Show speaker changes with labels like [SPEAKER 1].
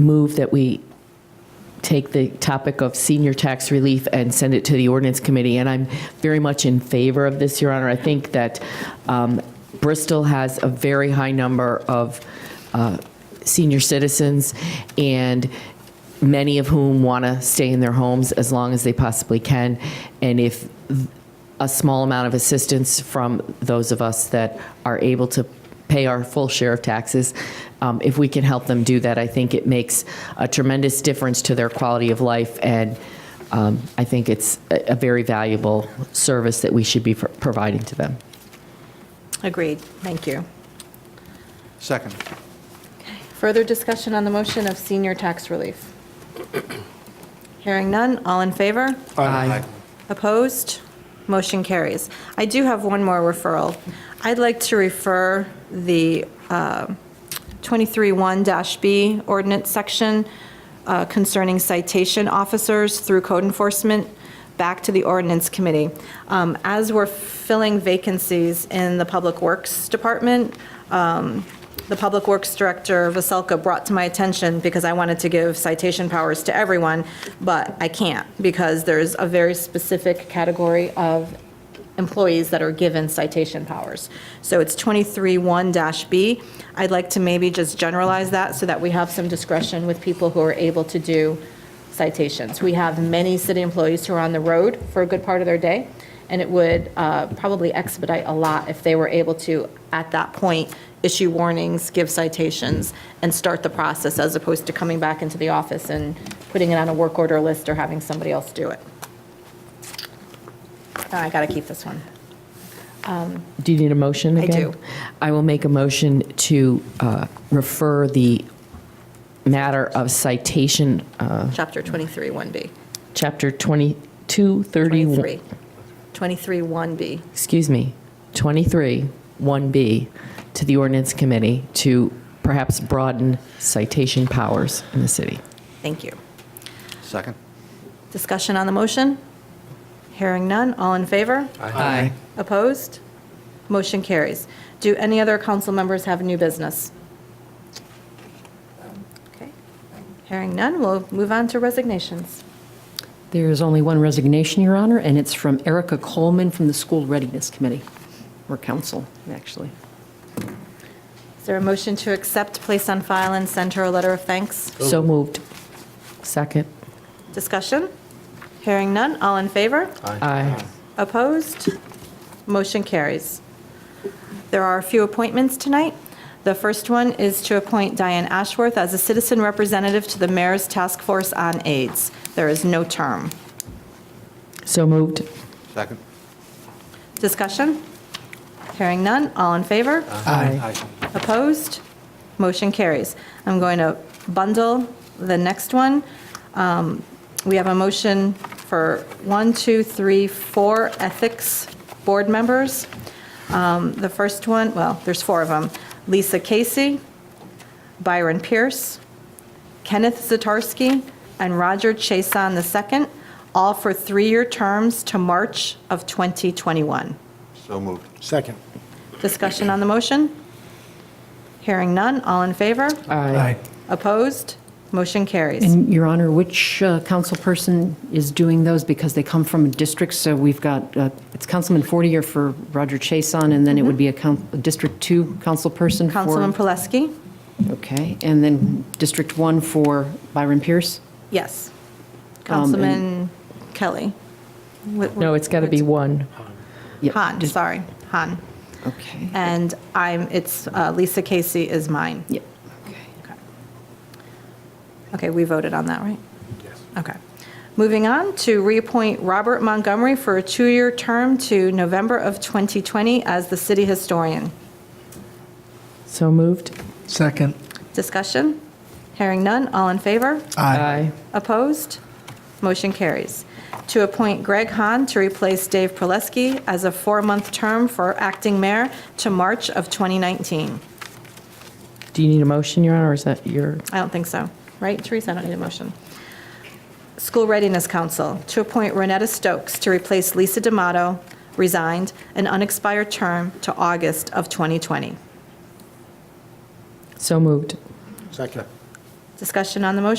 [SPEAKER 1] move that we take the topic of senior tax relief and send it to the ordinance committee. And I'm very much in favor of this, Your Honor. I think that um, Bristol has a very high number of uh, senior citizens, and many of whom want to stay in their homes as long as they possibly can. And if a small amount of assistance from those of us that are able to pay our full share of taxes. Um, if we can help them do that, I think it makes a tremendous difference to their quality of life, and um, I think it's a, a very valuable service that we should be pro- providing to them.
[SPEAKER 2] Agreed. Thank you.
[SPEAKER 3] Second.
[SPEAKER 2] Further discussion on the motion of senior tax relief? Hearing none, all in favor?
[SPEAKER 1] Aye.
[SPEAKER 2] Opposed? Motion carries. I do have one more referral. I'd like to refer the uh, 23-1-B ordinance section uh, concerning citation officers through code enforcement back to the ordinance committee. Um, As we're filling vacancies in the Public Works Department, um, the Public Works Director, Vaselka, brought to my attention because I wanted to give citation powers to everyone, but I can't because there's a very specific category of employees that are given citation powers. So it's 23-1-B. I'd like to maybe just generalize that so that we have some discretion with people who are able to do citations. We have many city employees who are on the road for a good part of their day, and it would uh, probably expedite a lot if they were able to, at that point, issue warnings, give citations, and start the process, as opposed to coming back into the office and putting it on a work order list or having somebody else do it. Oh, I got to keep this one.
[SPEAKER 1] Do you need a motion
[SPEAKER 2] I
[SPEAKER 1] again?
[SPEAKER 2] do.
[SPEAKER 1] I will make a motion to uh, refer the matter of citation, uh,
[SPEAKER 2] Chapter 23, 1B.
[SPEAKER 1] Chapter 2231.
[SPEAKER 2] 23. 23, 1B.
[SPEAKER 1] excuse me, 23, 1B, to the ordinance committee to perhaps broaden citation powers in the city.
[SPEAKER 2] Thank you.
[SPEAKER 3] Second.
[SPEAKER 2] Discussion on the motion? Hearing none, all in favor?
[SPEAKER 1] Aye.
[SPEAKER 2] Opposed? Motion carries. Do any other council members have new business? Okay. Hearing none, we'll move on to resignations.
[SPEAKER 4] There is only one resignation, Your Honor, and it's from Erica Coleman from the School Readiness Committee, or Council, actually.
[SPEAKER 2] Is there a motion to accept, place on file, and send her a letter of thanks?
[SPEAKER 1] So moved. Second.
[SPEAKER 2] Discussion? Hearing none, all in favor?
[SPEAKER 1] Aye.
[SPEAKER 2] Opposed? Motion carries. There are a few appointments tonight. The first one is to appoint Diane Ashworth as a citizen representative to the Mayor's Task Force on AIDS. There is no term.
[SPEAKER 1] So moved.
[SPEAKER 3] Second.
[SPEAKER 2] Discussion? Hearing none, all in favor?
[SPEAKER 1] Aye.
[SPEAKER 2] Opposed? Motion carries. I'm going to bundle the next one. Um, We have a motion for one, two, three, four ethics board members. Um, The first one, well, there's four of them. Lisa Casey, Byron Pierce, Kenneth Zatarsky, and Roger Chason II, all for three-year terms to March of 2021.
[SPEAKER 3] So moved.
[SPEAKER 5] Second.
[SPEAKER 2] Discussion on the motion? Hearing none, all in favor?
[SPEAKER 1] Aye.
[SPEAKER 2] Opposed? Motion carries.
[SPEAKER 4] And Your Honor, which uh, council person is doing those? Because they come from districts, so we've got, uh, it's Councilman Fortier for Roger Chason, and then it would be a coun- a District 2 council person for...
[SPEAKER 2] Councilman Proleski?
[SPEAKER 4] Okay, and then District 1 for Byron Pierce?
[SPEAKER 2] Yes.
[SPEAKER 4] Um,
[SPEAKER 2] Councilman Kelly? Wh- wh-
[SPEAKER 1] No, it's got to be one.
[SPEAKER 4] Yep,
[SPEAKER 2] Han,
[SPEAKER 4] dis-
[SPEAKER 2] sorry, Han.
[SPEAKER 4] Okay.
[SPEAKER 2] And I'm, it's, uh, Lisa Casey is mine.
[SPEAKER 4] Yep, okay.
[SPEAKER 2] Okay, we voted on that, right? Yes. Okay. Moving on to reappoint Robert Montgomery for a two-year term to November of 2020 as the city historian.
[SPEAKER 1] So moved.
[SPEAKER 5] Second.
[SPEAKER 2] Discussion? Hearing none, all in favor?
[SPEAKER 1] Aye.
[SPEAKER 2] Opposed? Motion carries. To appoint Greg Hahn to replace Dave Proleski as a four-month term for acting mayor to March of 2019.
[SPEAKER 1] Do you need a motion, Your Honor, or is that your?
[SPEAKER 2] I don't think so. Right, Teresa? I don't need a motion. School Readiness Council, to appoint Renetta Stokes to replace Lisa D'Amato, resigned, an unexpired term to August of 2020.
[SPEAKER 1] So moved.
[SPEAKER 5] Second.
[SPEAKER 2] Discussion on the motion?